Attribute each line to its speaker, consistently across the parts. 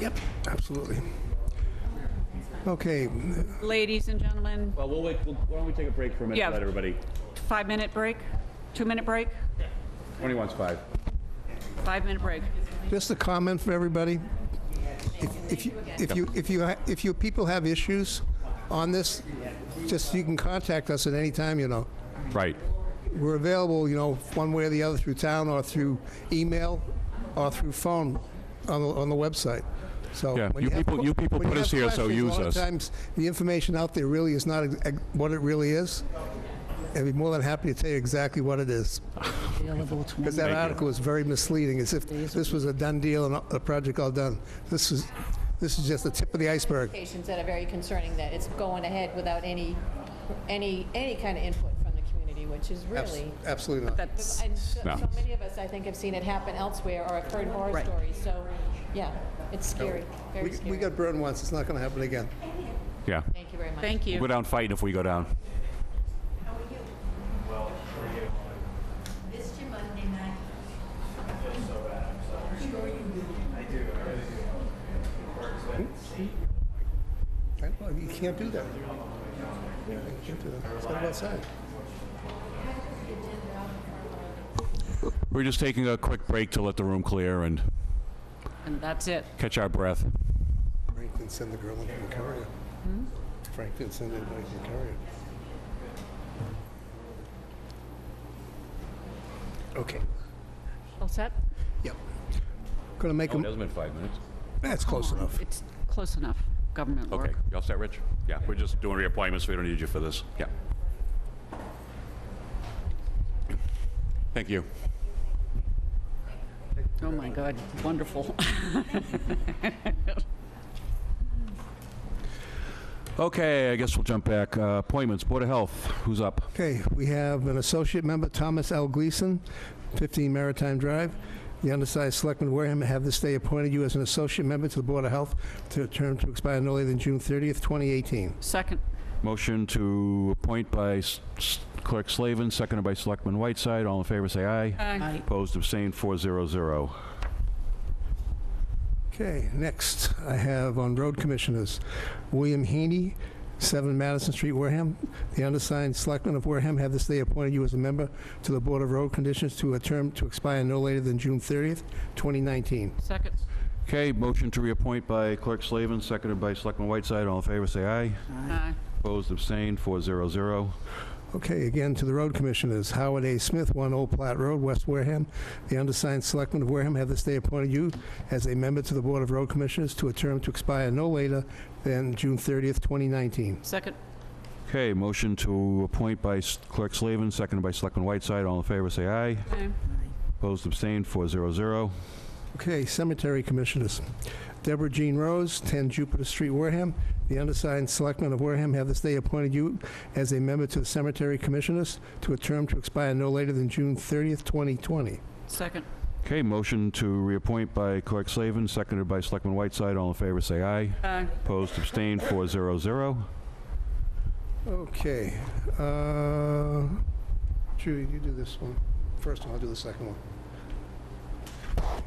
Speaker 1: Yep, absolutely. Okay,
Speaker 2: Ladies and gentlemen,
Speaker 3: Well, we'll wait, we'll- why don't we take a break for a minute,
Speaker 2: Yeah.
Speaker 3: to let everybody,
Speaker 2: five-minute break, two-minute break,
Speaker 3: 21's five.
Speaker 2: five-minute break.
Speaker 1: just a comment for everybody. If- If you, if you, if you, ha- if you people have issues on this, just, you can contact us at any time, you know.
Speaker 3: Right.
Speaker 1: We're available, you know, one way or the other through town or through email or through phone on the, on the website. So
Speaker 4: Yeah,
Speaker 1: when
Speaker 4: you
Speaker 1: have
Speaker 4: people-
Speaker 1: que-
Speaker 4: you people
Speaker 1: when
Speaker 4: put us
Speaker 1: have
Speaker 4: here, so
Speaker 1: questions,
Speaker 4: use
Speaker 1: A lot of
Speaker 4: us.
Speaker 1: times, the information out there really is not ex- ex- what it really is. I'd be more than happy to tell you exactly what it is.
Speaker 5: Available
Speaker 1: Because
Speaker 5: 20.
Speaker 1: that
Speaker 4: Thank you.
Speaker 1: article was very misleading, as if this was a done deal and the project all done. This is, this is just the tip of the iceberg.
Speaker 6: Patients that are very concerning that it's going ahead without any, any, any kind of input from the community, which is
Speaker 1: Abs-
Speaker 6: really.
Speaker 1: Absolutely not.
Speaker 2: That's,
Speaker 6: And so
Speaker 4: No.
Speaker 6: so many of us, I think, have seen it happen elsewhere or have heard horror
Speaker 2: Right.
Speaker 6: stories, so, yeah, it's scary, very
Speaker 1: We- We
Speaker 6: scary.
Speaker 1: got burned once, it's not going to happen again.
Speaker 4: Yeah.
Speaker 6: Thank you very much.
Speaker 2: thank
Speaker 4: We'll go
Speaker 2: you.
Speaker 4: down fighting if we go down.
Speaker 7: Missed you Monday night.
Speaker 1: Right? Well, You can't do that. Yeah, You can't do that. It's not outside.
Speaker 4: We're just taking a quick break to let the room clear and
Speaker 2: And that's it.
Speaker 4: catch our breath.
Speaker 1: Frank didn't send the girl in from Carrier. Frank didn't send anybody from Carrier. Okay,
Speaker 2: All set?
Speaker 1: yep. Going to make
Speaker 3: Oh, it
Speaker 1: them,
Speaker 3: hasn't been five minutes.
Speaker 1: that's close enough.
Speaker 2: It's close enough, government
Speaker 4: Okay,
Speaker 2: work.
Speaker 4: you all set, Rich? Yeah, we're just doing reappointments, we don't need you for this. Yeah. Thank you.
Speaker 2: Oh, my God, wonderful.
Speaker 4: Okay, I guess we'll jump back. Uh, Appointments, Board of Health, who's up?
Speaker 1: Okay, we have an associate member, Thomas L. Gleason, 15 Maritime Drive. The undersized Selectman Wareham have this day appointed you as an associate member to the Board of Health to a term to expire no later than June 30th, 2018.
Speaker 2: Second,
Speaker 4: Motion to appoint by S- S- Clerk Slavin, seconded by Selectman Whiteside. All in favor, say aye.
Speaker 2: Aye.
Speaker 4: Opposed, abstained, 400.
Speaker 1: Okay, next, I have on road commissioners, William Heaney, 7 Madison Street, Wareham. The undersigned Selectmen of Wareham have this day appointed you as a member to the Board of Road Conditions to a term to expire no later than June 30th, 2019.
Speaker 2: second,
Speaker 4: Okay, motion to reappoint by Clerk Slavin, seconded by Selectman Whiteside. All in favor, say aye.
Speaker 2: aye.
Speaker 4: Opposed, abstained, 400.
Speaker 1: Okay, again to the road commissioners, Howard A. Smith, 1 Old Platte Road, West Wareham. The undersigned selectmen of Wareham have this day appointed you as a member to the Board of Road Commissioners to a term to expire no later than June 30th, 2019.
Speaker 2: Second,
Speaker 4: Okay, motion to appoint by S- Clerk Slavin, seconded by Selectman Whiteside. All in favor, say aye.
Speaker 2: aye.
Speaker 4: Opposed, abstained, 400.
Speaker 1: Okay, cemetery commissioners, Deborah Jean Rose, 10 Jupiter Street, Wareham. The undersigned selectmen of Wareham have this day appointed you as a member to the Cemetery Commissioners to a term to expire no later than June 30th, 2020.
Speaker 2: Second,
Speaker 4: Okay, motion to reappoint by Clerk Slavin, seconded by Selectman Whiteside. All in favor, say aye.
Speaker 2: aye.
Speaker 4: Opposed, abstained, 400.
Speaker 1: Okay. uh, Judy, you do this one first, and I'll do the second one.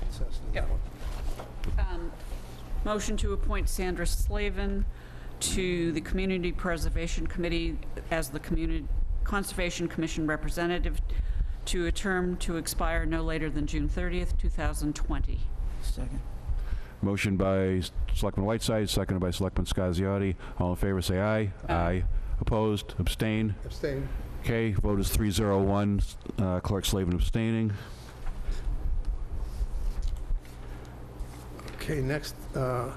Speaker 1: Assess that
Speaker 2: Yep.
Speaker 1: one.
Speaker 2: Um, Motion to appoint Sandra Slavin to the Community Preservation Committee as the Community Conservation Commission representative to a term to expire no later than June 30th, 2020.
Speaker 5: Second.
Speaker 4: Motion by S- Selectman Whiteside, seconded by Selectman Scasiotti. All in favor, say aye.
Speaker 2: Aye.
Speaker 4: Opposed, abstained.
Speaker 1: Abstain.
Speaker 4: Okay, vote is 301, uh, Clerk Slavin abstaining.
Speaker 1: Okay, next, uh,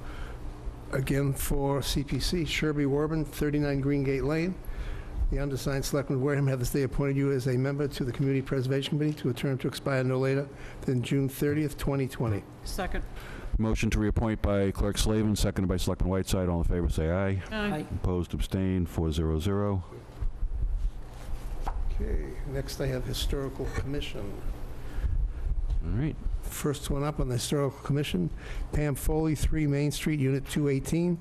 Speaker 1: again for CPC, Sherby Warburton, 39 Green Gate Lane. The undersigned Selectman Wareham have this day appointed you as a member to the Community Preservation Committee to a term to expire no later than June 30th, 2020.
Speaker 2: Second.
Speaker 4: Motion to reappoint by Clerk Slavin, seconded by Selectman Whiteside. All in favor, say aye.
Speaker 2: Aye.
Speaker 4: Opposed, abstained, 400.
Speaker 1: Okay, next I have Historical Commission.
Speaker 4: All right.
Speaker 1: First one up on the Historical Commission, Pam Foley, 3 Main Street, Unit 218.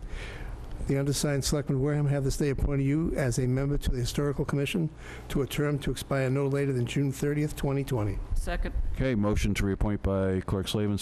Speaker 1: The undersigned Selectman Wareham have this day appointed you as a member to the Historical Commission to a term to expire no later than June 30th, 2020.
Speaker 2: Second.
Speaker 4: Okay, motion to reappoint by Clerk Slavin,